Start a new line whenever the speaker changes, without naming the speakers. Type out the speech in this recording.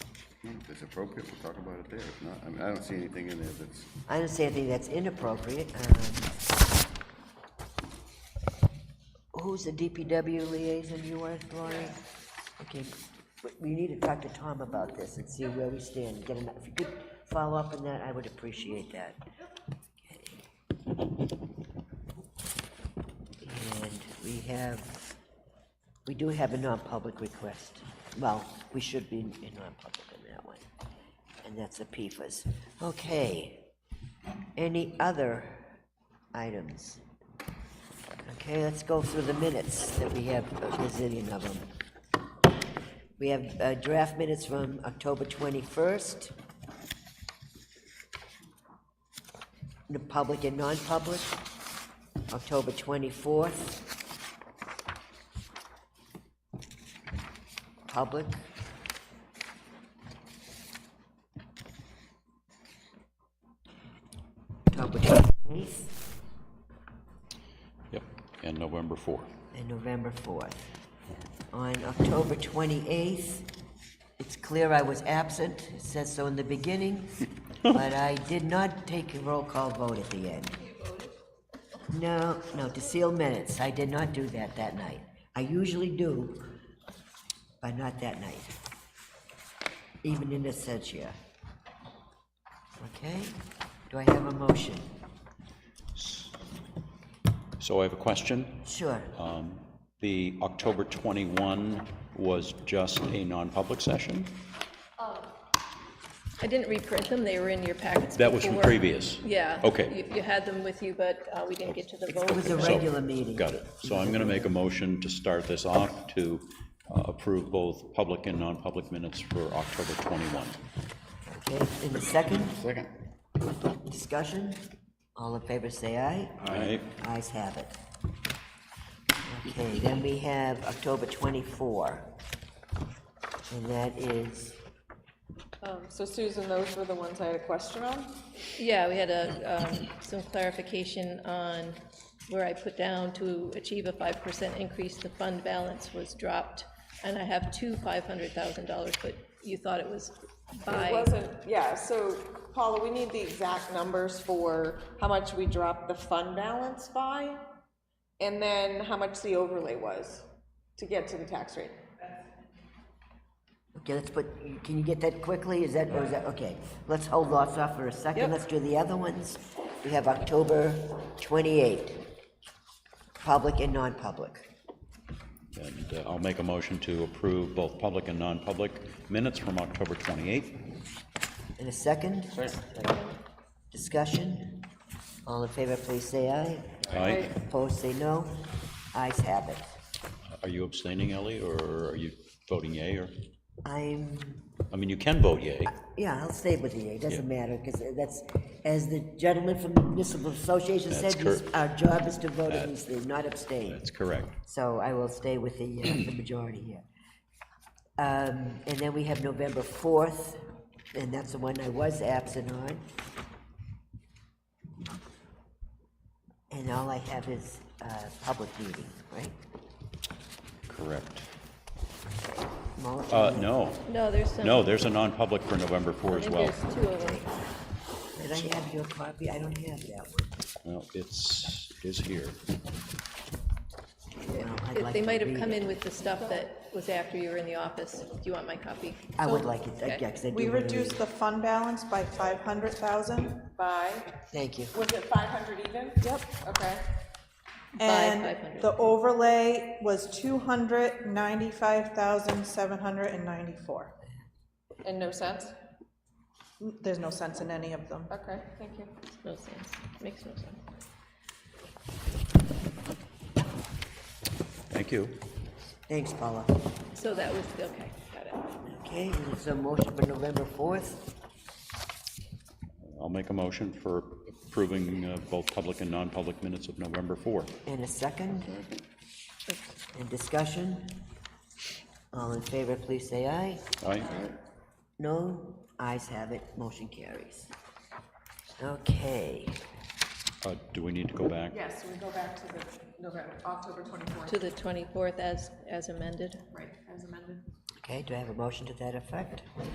If it's appropriate, we'll talk about it there. If not, I mean, I don't see anything in there that's,
I don't see anything that's inappropriate. um, Who's the DPW liaison you are, Lori? Okay, but we need to talk to Tom about this and see where we stand, get him, if you could follow up on that, I would appreciate that. And we have, we do have a non-public request. Well, we should be in non-public on that one, and that's the PFAS. Okay. Any other items? Okay, let's go through the minutes that we have, a gazillion of them. We have uh, draft minutes from October 21st. The public and non-public, October 24th. Public, October 28th.
Yep, and November 4.
and November 4th. On October 28th, it's clear I was absent, it says so in the beginning, but I did not take a roll call vote at the end. No, no, to seal minutes, I did not do that that night. I usually do, but not that night, even in absentia. Okay, do I have a motion?
So I have a question.
Sure,
Um, The October 21 was just a non-public session?
I didn't reprint them, they were in your packets
That was from
before.
previous?
Yeah.
Okay,
You- You had them with you, but uh, we didn't get to the vote.
it was a
so-
regular meeting.
got it. So I'm going to make a motion to start this off to uh, approve both public and non-public minutes for October 21.
Okay, in the second?
second,
Discussion? All in favor, say aye.
All right,
Ayes have it. Okay, then we have October 24. And that is,
Um, So Susan, those were the ones I had a question on?
Yeah, we had a, um, some clarification on where I put down to achieve a 5% increase, the fund balance was dropped, and I have two $500,000, but you thought it was
It
by,
wasn't, yeah, so Paula, we need the exact numbers for how much we dropped the fund balance by, and then how much the overlay was to get to the tax rate.
okay, let's put, can you get that quickly? Is that, or is that, okay. Let's hold off off for a second.
Yep.
Let's do the other ones. We have October 28, public and non-public.
and uh, I'll make a motion to approve both public and non-public minutes from October 28.
In a second? Discussion? All in favor, please say aye.
All right,
Opposed, say no. Ayes have it.
are you abstaining, Ellie, or are you voting yea, or,
I'm,
I mean, you can vote yea.
yeah, I'll stay with you, it doesn't matter, because that's, as the gentleman from the municipal association said,
That's
this-
correct.
our job is to vote against these, not abstain.
That's correct.
So I will stay with the, uh, the majority here. Um, And then we have November 4th, and that's the one I was absent on. And all I have is uh, public meeting, right?
Correct.
Motion.
Uh, no,
no, there's some.
no, there's a non-public for November 4
I
as
think
well.
there's two of them.
Did I have your copy? I don't have that one.
Well, it's, it is here.
Well, I'd
If
like
They
to
might have
read
come
it.
in with the stuff that was after you were in the office. Do you want my copy?
I would like it,
Okay.
yeah, because I do.
We
wanna read
reduced
it.
the fund balance by five hundred thousand.
By,
Thank you.
was it five hundred even? Yep. Okay.
And
500.
the overlay was two hundred ninety-five thousand, seven hundred and ninety-four.
And no cents?
There's no sense in any of them.
Okay, thank you.
No sense, makes no sense.
Thank you.
Thanks, Paula.
So that was, okay, got it.
Okay, is there some motion for November 4th?
I'll make a motion for approving uh, both public and non-public minutes of November 4.
And a second? And discussion? All in favor, please say aye.
All right?
No? Ayes have it, motion carries. Okay,
Uh, Do we need to go back?
Yes, we go back to the November, October twenty-fourth.
To the 24th as, as amended?
Right, as amended.
okay, do I have a motion to that effect?